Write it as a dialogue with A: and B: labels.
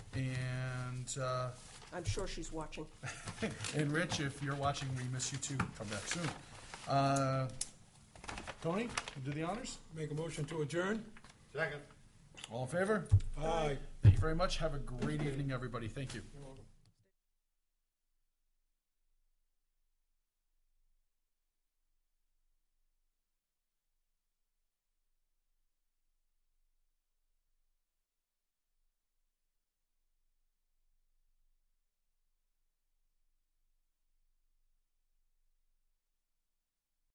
A: And, uh,
B: I'm sure she's watching.
A: and Rich, if you're watching, we miss you too. Come back soon. Uh, Tony, you do the honors.
C: Make a motion to adjourn?
D: Second.
A: All in favor?
C: Aye.
A: Thank you very much. Have a great evening, everybody. Thank you.
C: You're